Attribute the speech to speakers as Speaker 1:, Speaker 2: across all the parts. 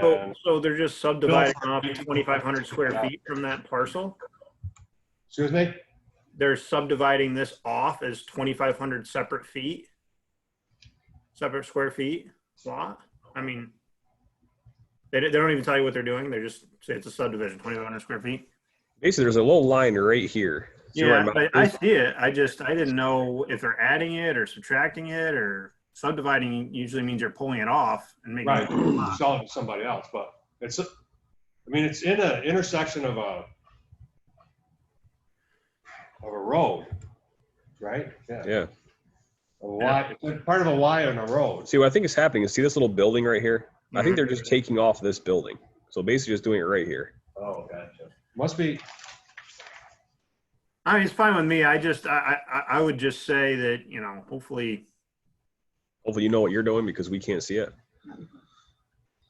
Speaker 1: So,
Speaker 2: And
Speaker 1: so they're just subdividing off 2,500 square feet from that parcel?
Speaker 2: Excuse me?
Speaker 1: They're subdividing this off as 2,500 separate feet? Separate square feet lot? I mean, they, don't- they don't even tell you what they're doing. They're just, say it's a subdivision, 2,500 square feet.
Speaker 3: Basically, there's a little line right here. See where
Speaker 1: Yeah,
Speaker 3: my-
Speaker 1: I, I see it. I just, I didn't know if they're adding it or subtracting it or subdividing usually means you're pulling it off and making.
Speaker 2: Right,
Speaker 1: it a lot.
Speaker 2: sell it to somebody else, but it's, a- I mean, it's in a intersection of a, of a road, right? Yeah.
Speaker 3: yeah.
Speaker 2: A Y, it's part of a Y on a road.
Speaker 3: See what I think is happening is see this little building right here. I think
Speaker 1: Mhm.
Speaker 3: they're just taking off this building. So basically, just doing it right here.
Speaker 2: Oh, gotcha. Must be,
Speaker 1: I mean, it's fine with me. I just, I, I, I- I would just say that, you know, hopefully,
Speaker 3: Hopefully, you know what you're doing because we can't see it.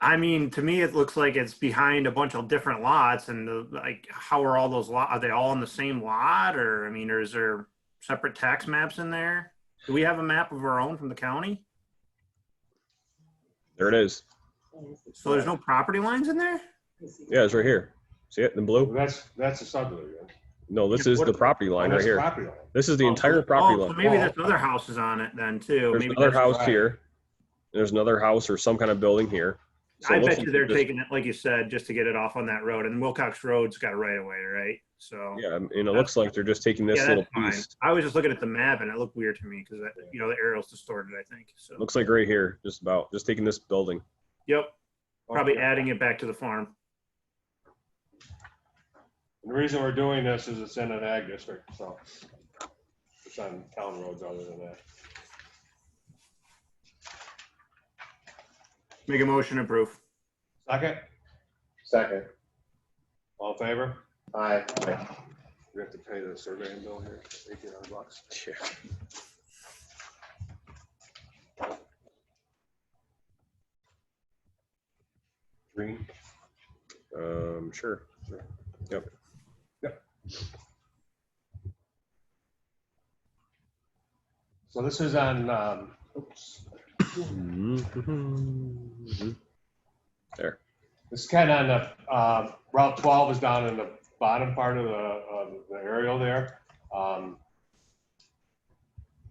Speaker 1: I mean, to me, it looks like it's behind a bunch of different lots and the, like, how are all those lot, are they all in the same lot? Or, I mean, or is there separate tax maps in there? Do we have a map of our own from the county?
Speaker 3: There it is.
Speaker 1: So there's no property lines in there?
Speaker 3: Yeah, it's right here. See it in blue?
Speaker 2: that's, that's a subdivision.
Speaker 3: No, this is the property line right
Speaker 2: That's
Speaker 3: here.
Speaker 2: property line.
Speaker 3: This is the entire
Speaker 1: Oh,
Speaker 3: property
Speaker 1: so
Speaker 3: line.
Speaker 1: maybe there's other houses on it then too.
Speaker 3: There's
Speaker 1: Maybe
Speaker 3: another
Speaker 1: that's-
Speaker 3: house here. There's another house or some kind of building here. So it
Speaker 1: I
Speaker 3: looks
Speaker 1: bet
Speaker 3: like
Speaker 1: you they're
Speaker 3: just-
Speaker 1: taking it, like you said, just to get it off on that road and Wilcox Road's got a right of way, right? So.
Speaker 3: Yeah, and it looks like they're just taking this
Speaker 1: Yeah,
Speaker 3: little
Speaker 1: that's fine.
Speaker 3: piece.
Speaker 1: I was just looking at the map and it looked weird to me because, you know, the aerial's distorted, I think. So,
Speaker 3: Looks like right here, just about, just taking this building.
Speaker 1: yep, probably
Speaker 2: Okay.
Speaker 1: adding it back to the farm.
Speaker 2: The reason we're doing this is it's in an ag district, so it's on town roads other than that.
Speaker 1: Make a motion to approve.
Speaker 2: Second,
Speaker 4: Second.
Speaker 2: all in favor?
Speaker 4: Aye.
Speaker 2: We have to pay the surveying bill here, eighteen hundred bucks.
Speaker 3: Green. Um, sure. Yep.
Speaker 2: So this is on, um, oops, Mm-hmm. this is kind of on the, um, Route twelve is down in the bottom part of the, of the aerial there. Um,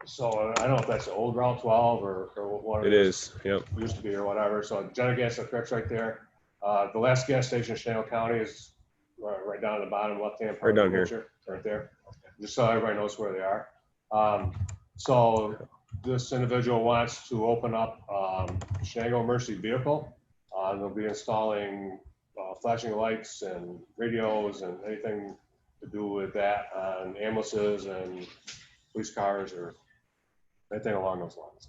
Speaker 2: So I don't know if that's the old Route twelve or, or what.
Speaker 3: It is, yep.
Speaker 2: used to be or whatever. So Jenna Gas, that's correct right there. Uh, the last gas station in Chanel County is right, right down at the bottom left-hand. part
Speaker 3: Right
Speaker 2: of the
Speaker 3: down here.
Speaker 2: picture, Right there. Just so everybody knows where they are. Um, so this individual wants to open up, um, Shenango Mercy vehicle. Uh, they'll be installing, uh, flashing lights and radios and anything to do with that on ambulances and police cars or anything along those lines.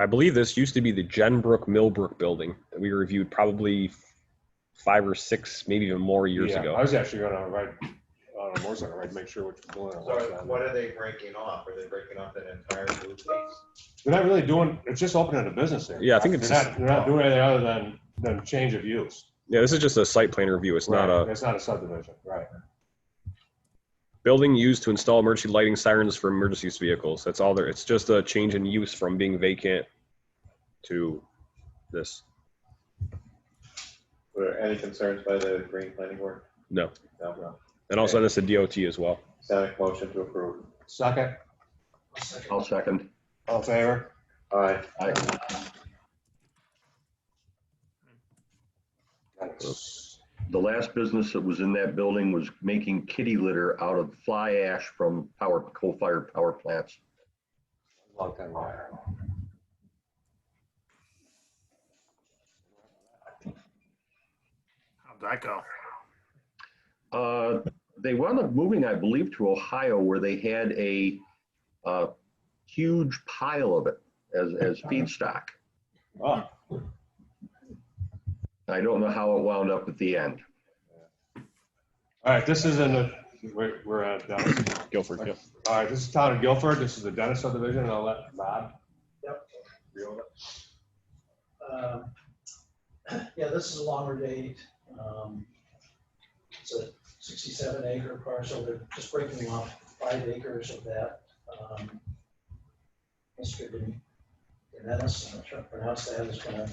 Speaker 3: I believe this used to be the Jenbrook Millbrook building that we reviewed probably five or six, maybe even more years
Speaker 2: Yeah, I
Speaker 3: ago.
Speaker 2: was actually gonna write, uh, more so, right, make sure which building it
Speaker 4: So
Speaker 2: was on.
Speaker 4: what are they breaking off? Are they breaking off that entire blue piece?
Speaker 2: They're not really doing, it's just opening a business there.
Speaker 3: Yeah, I think it's
Speaker 2: They're not,
Speaker 3: just-
Speaker 2: they're not doing anything other than, than change of use.
Speaker 3: Yeah, this is just a site plan review. It's not
Speaker 2: Right,
Speaker 3: a
Speaker 2: It's not a subdivision, right.
Speaker 3: building used to install emergency lighting sirens for emergency use vehicles. That's all there. It's just a change in use from being vacant to this.
Speaker 4: Were any concerns by the green planning board?
Speaker 3: No.
Speaker 4: No, no.
Speaker 3: And I'll send this to DOT as well.
Speaker 4: Sonic motion to approve.
Speaker 2: Second,
Speaker 5: I'll second.
Speaker 2: all in favor?
Speaker 4: Aye.
Speaker 5: Aye.
Speaker 2: That's-
Speaker 5: The last business that was in that building was making kitty litter out of fly ash from power, coal-fired power plants.
Speaker 2: Long time ago.
Speaker 1: How'd that go?
Speaker 5: Uh, They wound up moving, I believe, to Ohio where they had a uh, huge pile of it as, as feedstock.
Speaker 2: Oh,
Speaker 5: I don't know how it wound up at the end.
Speaker 2: All right, this is in the, we're, we're at Dennis.
Speaker 3: Guilford,
Speaker 2: yep. All right, this is town of Guilford. This is the Dennis subdivision, and I'll let Bob.
Speaker 6: Yep.
Speaker 2: reel it.
Speaker 6: Um, Yeah, this is a longer date. Um, It's a 67 acre parcel, they're just breaking off five acres of that. um, Mr. Dennis, I'm not sure how to pronounce that, is gonna